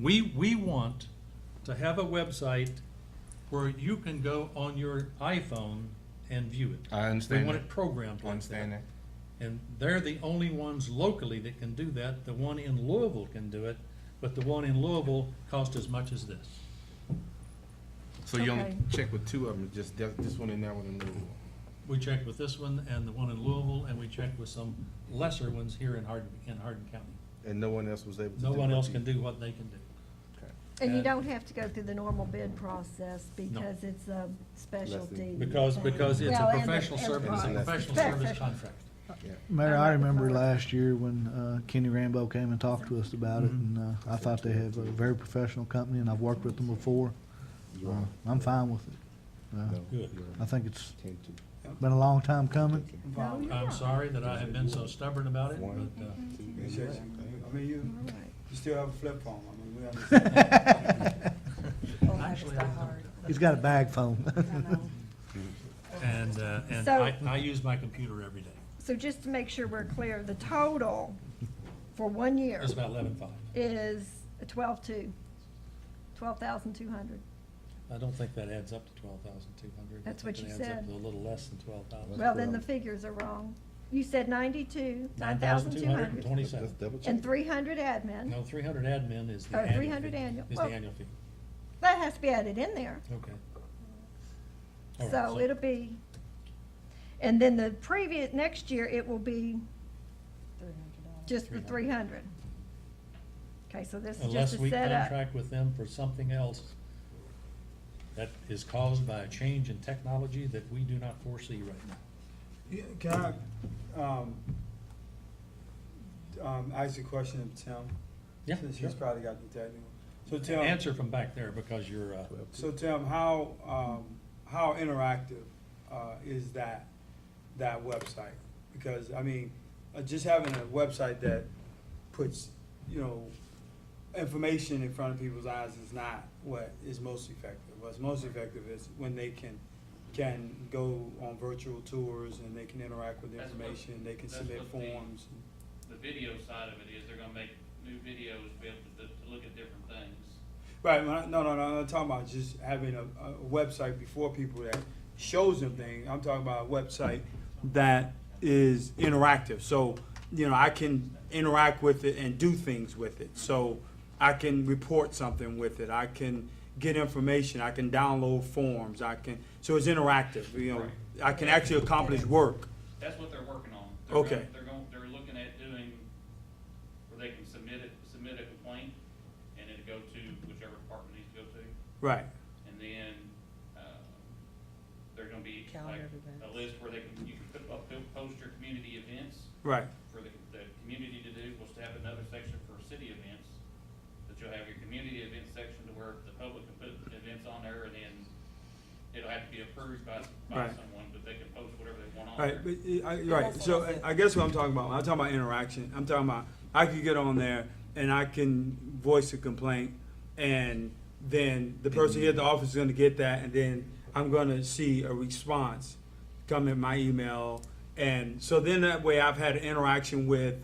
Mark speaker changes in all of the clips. Speaker 1: We, we want to have a website where you can go on your iPhone and view it.
Speaker 2: I
Speaker 1: We
Speaker 2: understand.
Speaker 1: want
Speaker 2: that.
Speaker 1: it programmed
Speaker 2: I
Speaker 1: like
Speaker 2: understand
Speaker 1: that.
Speaker 2: that.
Speaker 1: And they're the only ones locally that can do that. The one in Louisville can do it, but the one in Louisville costs as much as this.
Speaker 2: So you only
Speaker 3: Okay.
Speaker 2: check with two of them, just that- this one and that one in Louisville.
Speaker 1: We checked with this one and the one in Louisville, and we checked with some lesser ones here in Hardin, in Hardin County.
Speaker 2: and no one else was able to.
Speaker 1: No
Speaker 2: do
Speaker 1: one
Speaker 2: what
Speaker 1: else
Speaker 2: you-
Speaker 1: can do what they can do.
Speaker 2: Okay.
Speaker 3: And you
Speaker 1: And-
Speaker 3: don't have to go through the normal bid process because it's a specialty.
Speaker 1: Because,
Speaker 3: thing.
Speaker 1: because it's
Speaker 3: Well,
Speaker 1: a
Speaker 3: and the-
Speaker 1: professional
Speaker 3: and the
Speaker 1: service, it's a
Speaker 3: product.
Speaker 1: professional
Speaker 3: Fair,
Speaker 1: service
Speaker 3: fair.
Speaker 1: contract.
Speaker 4: Mayor, I
Speaker 3: Alright,
Speaker 4: remember
Speaker 3: fine.
Speaker 4: last year when uh, Kenny Rambo came and talked to us about it, and uh, I thought they have a very professional company, and I've worked with them before.
Speaker 2: You
Speaker 4: Uh,
Speaker 2: are-
Speaker 4: I'm fine with it. Uh,
Speaker 2: No,
Speaker 1: Good.
Speaker 2: you are
Speaker 4: I think it's
Speaker 2: Ten to.
Speaker 4: been a long time coming.
Speaker 2: Okay.
Speaker 3: No, you're
Speaker 1: I'm
Speaker 3: not.
Speaker 1: sorry that I have been so stubborn about it,
Speaker 2: One,
Speaker 1: but, uh,
Speaker 2: two,
Speaker 5: It
Speaker 2: and
Speaker 5: says,
Speaker 2: one.
Speaker 5: I mean, you,
Speaker 3: All right.
Speaker 5: you still have a flip phone, I mean, we understand.
Speaker 6: Well, Oh, that is
Speaker 1: Actually, I don't.
Speaker 6: not hard.
Speaker 4: He's got a bag phone.
Speaker 6: I know.
Speaker 1: and, uh, and
Speaker 3: So-
Speaker 1: I, I use my computer every day.
Speaker 3: So just to make sure we're clear, the total for one year
Speaker 1: It's about eleven-five.
Speaker 3: is twelve-two, twelve thousand two hundred.
Speaker 1: I don't think that adds up to twelve thousand two hundred.
Speaker 3: That's what you
Speaker 1: It adds up
Speaker 3: said.
Speaker 1: to a little less than twelve thousand.
Speaker 3: Well, then the figures are wrong. You said ninety-two, nine thousand two
Speaker 1: and
Speaker 3: hundred,
Speaker 2: Let's
Speaker 1: twenty-seven.
Speaker 2: double check.
Speaker 3: and three hundred admin.
Speaker 1: No, three hundred admin is the
Speaker 3: Oh,
Speaker 1: annual fee.
Speaker 3: 300 annual.
Speaker 1: Is the
Speaker 3: Well-
Speaker 1: annual fee,
Speaker 3: That has to be added in there.
Speaker 1: okay. All right,
Speaker 3: So it'll be, and then the previous, next year, it will be
Speaker 6: $300.
Speaker 3: just the three hundred. Okay, so this is just
Speaker 1: Unless
Speaker 3: a
Speaker 1: we
Speaker 3: setup.
Speaker 1: contract with them for something else that is caused by a change in technology that we do not foresee right now.
Speaker 5: Yeah, Can I, um, um, ask you a question of Tim?
Speaker 1: Yeah,
Speaker 5: Since
Speaker 1: sure.
Speaker 5: he's probably got the technical. So Tim.
Speaker 1: Answer from back there because you're, uh,
Speaker 5: So Tim, how, um, how interactive, uh, is that, that website? Because, I mean, uh, just having a website that puts, you know, information in front of people's eyes is not what is most effective. What's most effective is when they can, can go on virtual tours and they can interact with the
Speaker 7: That's what-
Speaker 5: information, they can
Speaker 7: that's
Speaker 5: submit
Speaker 7: what the-
Speaker 5: forms.
Speaker 7: the video side of it is they're gonna make new videos, be able to, to look at different things.
Speaker 5: Right, when I- no, no, no, I'm talking about just having a, a website before people that shows them things. I'm talking about a website that is interactive. So, you know, I can interact with it and do things with it. So I can report something with it. I can get information. I can download forms. I can, so it's interactive, you know.
Speaker 7: Right.
Speaker 5: I can actually accomplish work.
Speaker 7: That's what they're working on. They're gonna-
Speaker 5: Okay.
Speaker 7: They're going, they're looking at doing, where they can submit it, submit a complaint, and it'll go to whichever department needs to go to.
Speaker 5: Right,
Speaker 7: And then, uh, they're gonna be like
Speaker 6: Calendar
Speaker 7: a
Speaker 6: events.
Speaker 7: list where they can, you can put, up- put- post your community events
Speaker 5: right.
Speaker 7: for the, the community to do, was to have another section for city events. That you'll have your community event section to where the public can put events on there and then it'll have to be approved by, by
Speaker 5: Right.
Speaker 7: someone, but they can post whatever they want on
Speaker 5: Right,
Speaker 7: there.
Speaker 5: but, uh, I, right, so I- I guess what I'm talking about, when I'm talking about interaction, I'm talking about, I could get on there and I can voice a complaint, and then the person here at the office is gonna get that, and then I'm gonna see a response come in my email, and so then that way I've had an interaction with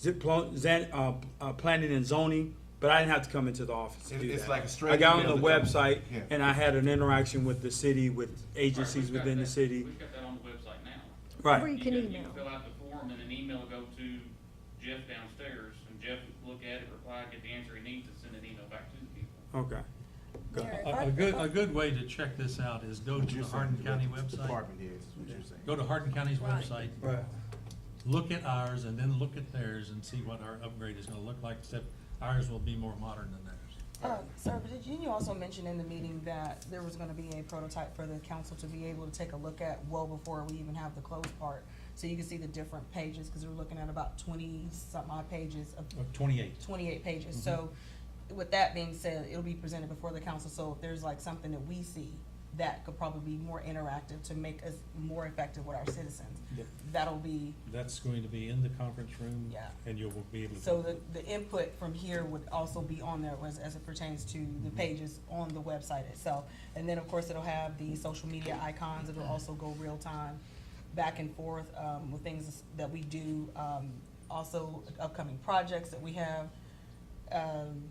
Speaker 5: zip, plo- zan, uh, uh, planning and zoning, but I didn't have to come into the office to
Speaker 2: It-
Speaker 5: do
Speaker 2: it's
Speaker 5: that.
Speaker 2: like a straight
Speaker 5: I got
Speaker 2: email
Speaker 5: on the
Speaker 2: that comes-
Speaker 5: website,
Speaker 2: yeah.
Speaker 5: and I had an interaction with the city, with agencies
Speaker 7: We've got
Speaker 5: within the
Speaker 7: that-
Speaker 5: city,
Speaker 7: We've got that on the website now.
Speaker 5: right.
Speaker 3: Where you can email.
Speaker 7: Fill out the form and an email will go to Jeff downstairs and Jeff will look at it, reply, get the answer he needs, and send an email back to the people.
Speaker 5: Okay. Go.
Speaker 6: Mayor, if I-
Speaker 1: a, a good,
Speaker 6: if I-
Speaker 1: a good way to check this out is go to the Hardin County website.
Speaker 2: Department heads is what you're saying.
Speaker 1: Go to Hardin County's
Speaker 6: Right.
Speaker 1: website,
Speaker 5: Right.
Speaker 1: look at ours and then look at theirs and see what our upgrade is gonna look like, except ours will be more modern than theirs.
Speaker 6: Uh, Sir, but did you you also mention in the meeting that there was gonna be a prototype for the council to be able to take a look at well before we even have the closed part? So you can see the different pages, cause we're looking at about twenty something odd pages of
Speaker 1: Uh, Twenty-eight.
Speaker 6: twenty-eight pages. So with that being said, it'll be presented before the council, so if there's like something that we see that could probably be more interactive to make us more effective with our citizens,
Speaker 1: Yep.
Speaker 6: that'll be,
Speaker 1: That's going to be in the conference room.
Speaker 6: Yeah.
Speaker 1: And you will be able to.
Speaker 6: so the, the input from here would also be on there as, as it pertains to the pages on the website itself. And then, of course, it'll have the social media icons, it'll also go real-time back and forth, um, with things that we do, um, also upcoming projects that we have. Um,